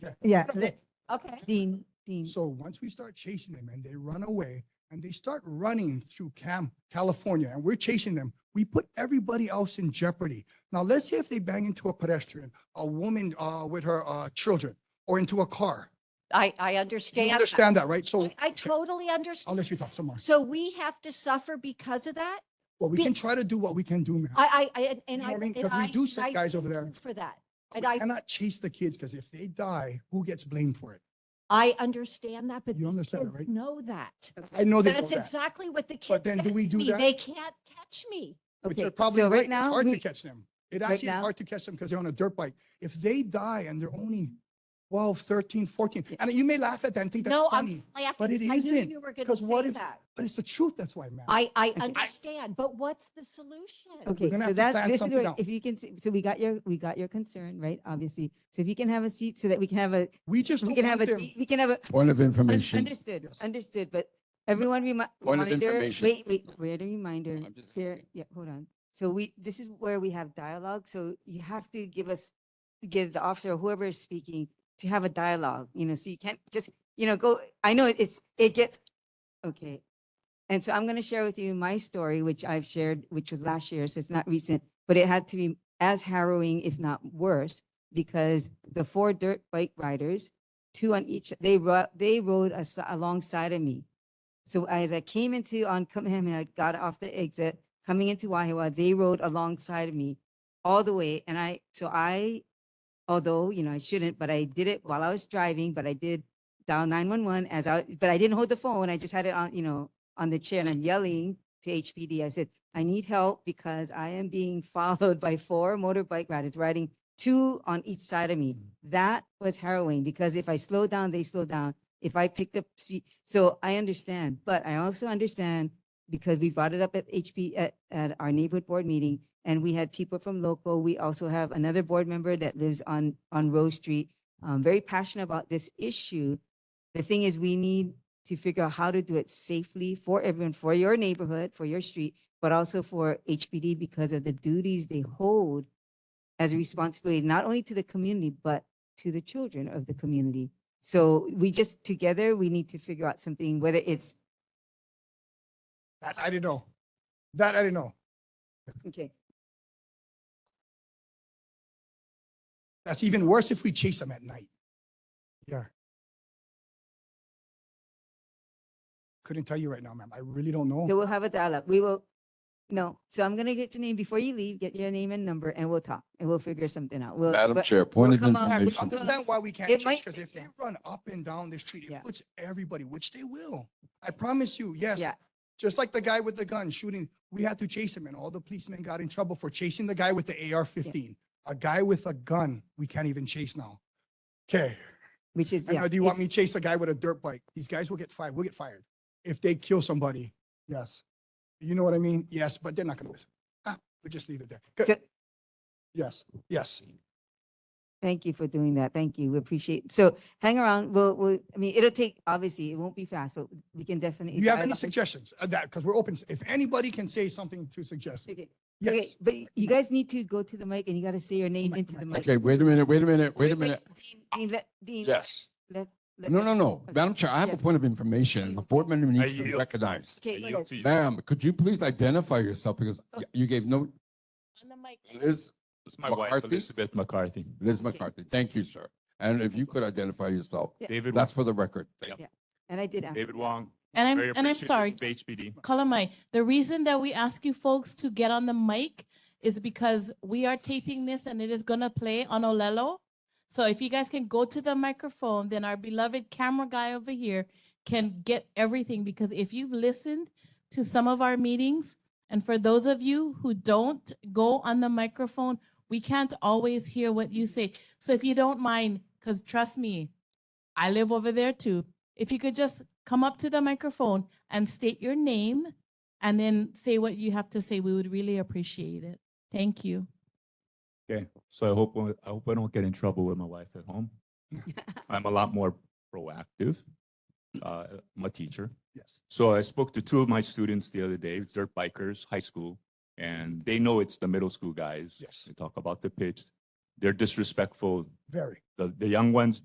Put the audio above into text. Yeah. Yeah, Okay. Okay. Dean, Dean. So once we start chasing them and they run away and they start running through Cam, California, and we're chasing them, we put everybody else in jeopardy. Now, let's say if they bang into a pedestrian, a woman uh, with her uh, children, or into a car. I, I You understand. that. understand Um, that, right? So I I totally I'll understand. let you talk some more. So we have to suffer because of that? Well, we be- can try to do what we can do, ma'am. I, I, I, and- and know I. what I mean? and 'Cause we I- do set I guys over thank there. you For that. We And I, cannot chase the kids because if they die, who gets blamed for it? I understand that, but You these understand that, kids right? know that. I know they know That's that, exactly what the kids. then do said we to do me. that? They can't catch me. which Okay, are probably so right. It's right now, hard to we- catch them. It right actually is now- hard to catch them because they're on a dirt bike. If they die and they're only 12, 13, 14, Yeah. and you may laugh at that and think that's No, I'm funny, laughing. but it because I knew isn't, You were going to 'cause what say if- that. but it's the truth. That's why, man. I, I I- understand, but what's the solution? Okay, gonna so have to that, plan this is, something what- out. if you can, see- so we got your, we got your concern, right, obviously. So if you can have a seat so that we can have a, We just we don't can have want a, them. de- we can have a, Point of un- information. understood, Yes. understood, but everyone remi- Point of monitor, information. wait, wait, wait, a reminder, I'm just here, looking. yeah, hold on. So we, this is where we have dialogue, so you have to give us, give the officer, or whoever is speaking, to have a dialogue, you know, so you can't just, you know, go, I know it's, it gets, okay. And so I'm going to share with you my story, which I've shared, which was last year, so it's not recent, but it had to be as harrowing, if not worse, because the four dirt bike riders, two on each, they ru- they rode as- alongside of me. So as I came into on Kamehameha, I got off the exit, coming into Wahiwa, they rode alongside of me all the way. And I, so I, although, you know, I shouldn't, but I did it while I was driving, but I did dial 911 as I, but I didn't hold the phone. I just had it on, you know, on the chair and I'm yelling to HPD. I said, I need help because I am being followed by four motorbike riders riding two on each side of me. That was harrowing because if I slow down, they slow down. If I picked up speed, so I understand, but I also understand because we brought it up at HP at, at our neighborhood board meeting and we had people from local. We also have another board member that lives on, on Rose Street, um, very passionate about this issue. The thing is, we need to figure out how to do it safely for everyone, for your neighborhood, for your street, but also for HPD because of the duties they hold as a responsibility, not only to the community, but to the children of the community. So we just, together, we need to figure out something, whether it's, That I didn't know. That I didn't know. okay, That's even worse if we chase them at night. Yeah. Couldn't tell you right now, ma'am. I really don't so know. we'll have a dialogue. We will, no. So I'm gonna get your name, before you leave, get your name and number, and we'll talk, and we'll figure something out. We'll- Madam but- Chair, point of come out- I would information. understand why we can't It chase might- because if they run up and down the street, Yeah. it puts everybody, which they will. I promise you, yes. Yeah. Just like the guy with the gun shooting, we had to chase him and all the policemen got in trouble for chasing the guy with the AR fifteen. A guy with a gun, we can't even chase now. Okay, Which is, I yeah. know, do you want me it's- to chase a guy with a dirt bike? These guys will get fired, we will get fired if they kill somebody. Yes. You know what I mean? Yes, but they're not gonna listen. Ah, we just leave it there. Good. So- Yes, yes. Thank you for doing that. Thank you. We appreciate. So hang around. We'll, we'll, I mean, it'll take, obviously, it won't be fast, but we can definitely. Do you have any dialogue. suggestions of that? Because we're open. If anybody can say something to suggest, Okay, okay, yes. but you guys need to go to the mic and you gotta say your name mic, into the mic. Okay, wait a minute, wait a minute, wait a Wait, minute. Dean- Dean, let, Dean. Yes. Let. let- No, no, no. Okay. Madam Chair, I have Yeah. a point of information. A board member needs to be yield. recognized. Okay, yes. Ma'am, could you please identify yourself because y- you gave no, Liz, It's my wife, McCarthy? Elizabeth McCarthy. Liz Okay. McCarthy. Thank you, sir. And if you could identify yourself, Yeah. David, Wong- that's for the record. Thank Yeah. and I did ask. David Wong. And very I'm, and I'm appreciative sorry, of HPD. Kalamai, the reason that we ask you folks to get on the mic is because we are taping this and it is gonna play on Olelo. So if you guys can go to the microphone, then our beloved camera guy over here can get everything, because if you've listened to some of our meetings, and for those of you who don't go on the microphone, we can't always hear what you say. So if you don't mind, because trust me, I live over there too. If you could just come up to the microphone and state your name and then say what you have to say, we would really appreciate it. Thank you. Okay, so I hope, I hope I don't get in trouble with my wife at home. I'm a lot more proactive. Uh, I'm a teacher. Yes. So I spoke to two of my students the other day, dirt bikers, high school, and they know it's the middle school guys. Yes. They talk about the pitch. They're disrespectful. Very. The, the young ones,